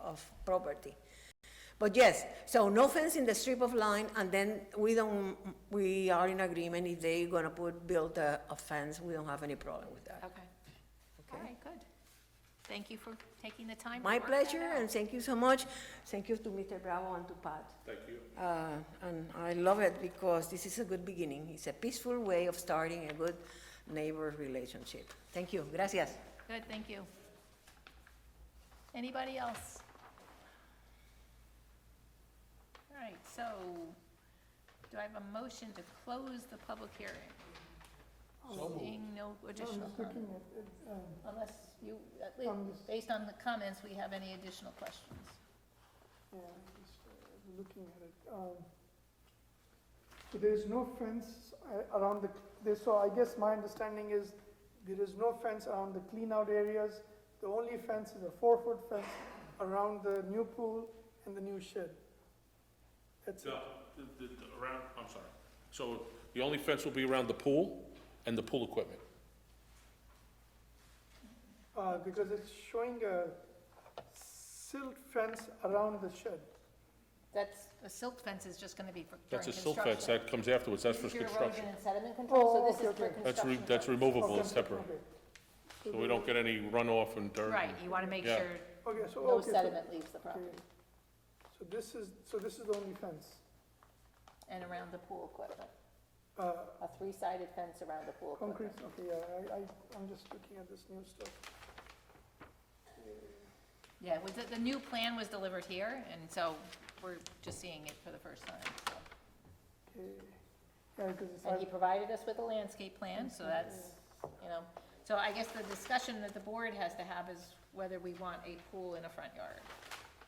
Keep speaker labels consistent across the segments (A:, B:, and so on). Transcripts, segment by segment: A: of property. But yes, so no fence in the strip of line, and then we don't, we are in agreement if they gonna put, build a, a fence, we don't have any problem with that.
B: Okay. All right, good. Thank you for taking the time. to
A: My
B: work that
A: pleasure,
B: out.
A: and thank you so much. Thank you to Mr. Bravo and to Pat. Thank you. And I love it because this is a good beginning. It's a peaceful way of starting a good neighbor relationship. Thank you, gracias.
B: Good, thank you. Anybody else? All right, so do I have a motion to close the public hearing? Seeing no
C: Oh,
B: additional comments.
C: uh,
B: Unless you, at least, based on the comments, we have any additional questions?
C: Yeah, just uh, looking at it. um, So there is no fence uh, around the, there- so I guess my understanding is there is no fence around the clean-out areas. The only fence is a four-foot fence around the new pool and the new shed. That's it.
D: No, the, the, the- around, I'm sorry. So the only fence will be around the pool and the pool equipment.
C: Uh, Because it's showing a silt fence around the shed.
B: That's, a silt fence is just gonna be for, during
D: That's a silt
B: construction.
D: fence, that comes afterwards, that's for
B: This is your erosion
D: construction.
B: and sediment control,
C: Oh,
B: so this is
C: okay,
B: for
C: okay.
D: That's, re-
B: construction.
D: that's
B: purposes.
D: removable, it's
C: Okay,
D: separate,
C: okay.
D: so we don't get any runoff and dirt.
B: Right, you wanna make
D: Yeah.
B: sure
C: Okay, so,
B: no
C: okay, so-
B: sediment leaves the
C: okay.
B: property
C: So this is, so this is the only fence.
B: and around the pool equipment.
C: Uh,
B: A three-sided fence around the pool
C: Concrete,
B: equipment.
C: okay, yeah, I, I, I'm just looking at this new stuff.
B: Yeah, was it, the new plan was delivered here, and so we're just seeing it for the first time. so.
C: Okay, yeah, because it's,
B: And he
C: hard-
B: provided us with a landscape plan,
C: Mm-hmm.
B: so that's, you know, so I guess the discussion that the board has to have is whether we want a pool in a front yard,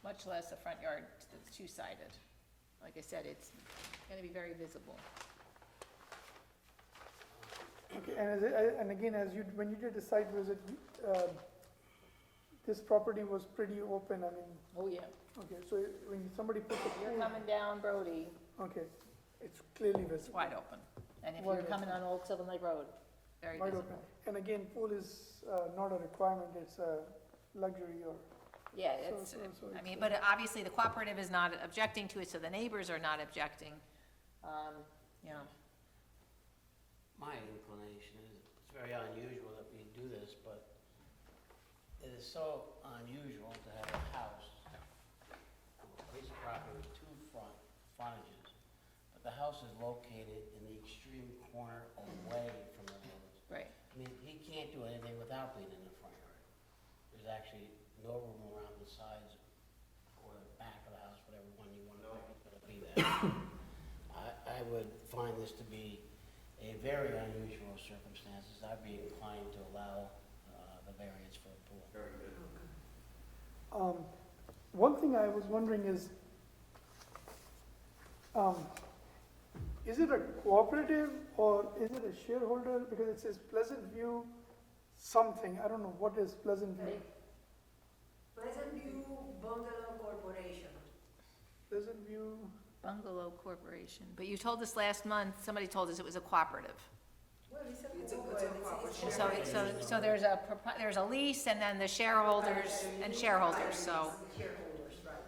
B: much less a front yard that's two-sided. Like I said, it's gonna be very visible.
C: okay, and as, I- and again, as you, when you did the site visit, you, um, this property was pretty open, I mean,
B: Oh, yeah.
C: okay, so when somebody puts a
B: You're
C: pool,
B: coming down Brody,
C: okay, it's clearly
B: it's
C: visible.
B: wide open. And if you're
C: Wide
B: coming on
C: open.
B: Old Sylvan Lake Road, very
C: Wide open,
B: visible.
C: and again, pool is, uh, not a requirement, it's a luxury or,
B: Yeah,
C: So-
B: it's,
C: so- so
B: I
C: it's
B: mean,
C: a-
B: but obviously the cooperative is not objecting to it, so the neighbors are not objecting. Um, you know,
E: My inclination is, it's very unusual that we do this, but it is so unusual to have a house, a piece of property with two front, frontages, but the house is located in the extreme corner away from the road.
B: right,
E: I mean, he can't do anything without being in the front yard. There's actually no room around the sides or the back of the house, whatever one you want to pick is gonna be there. I, I would find this to be a very unusual circumstances. I'd be inclined to allow, uh, the variance for a pool.
C: um, one thing I was wondering is, um, is it a cooperative or is it a shareholder? Because it says Pleasant View something, I don't know, what is Pleasant View?
A: Pleasant View Bungalow Corporation.
C: Pleasant View,
B: Bungalow Corporation, but you told us last month, somebody told us it was a cooperative.
A: Well, it's a corporation.
B: So, it- so, so there's a, propo- there's a lease and then the shareholders and shareholders, so,
A: Shareholders, right.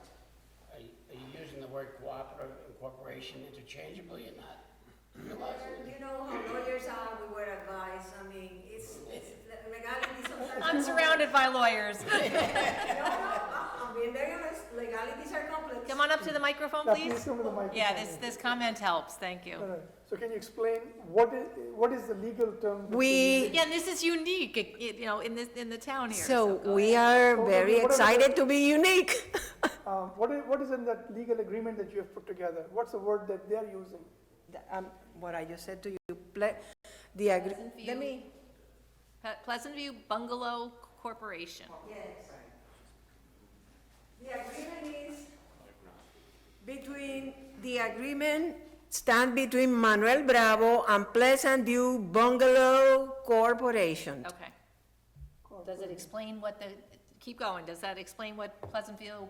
E: Are you, are you using the word cooperative and corporation interchangeably or not? Realizing it.
A: You know how lawyers are, we were advised, I mean, it's, it's legality sometimes.
B: I'm surrounded by lawyers.
A: No, no, I'm being very honest, legalities are complex.
B: Come on up to the microphone,
C: yeah, please
B: please.
C: come to the microphone.
B: Yeah, this, this comment helps, thank you.
C: All right. So can you explain what is, what is the legal term? that
A: We-
C: you're using?
B: Again, this is unique, it- it, you know, in this, in the town here.
A: So
B: go
A: we are
C: Well,
A: very
C: whatever the-
A: excited to be unique.
C: Um, what is, what is in that legal agreement that you have put together? What's the word that they're using?
A: Um, What I just said to you, ple- the, agri-
B: Pleasant View.
A: let me,
B: Pe- Pleasant View Bungalow Corporation.
A: Yes. The agreement is between, the agreement stand between Manuel Bravo and Pleasant View Bungalow Corporation.
B: Okay. Does it explain what the, keep going, does that explain what Pleasant View,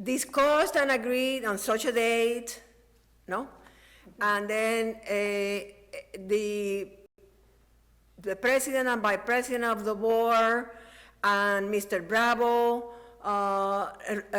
A: Discussed and agreed on such a date, no? And then eh, the, the president and vice president of the board and Mr. Bravo, uh,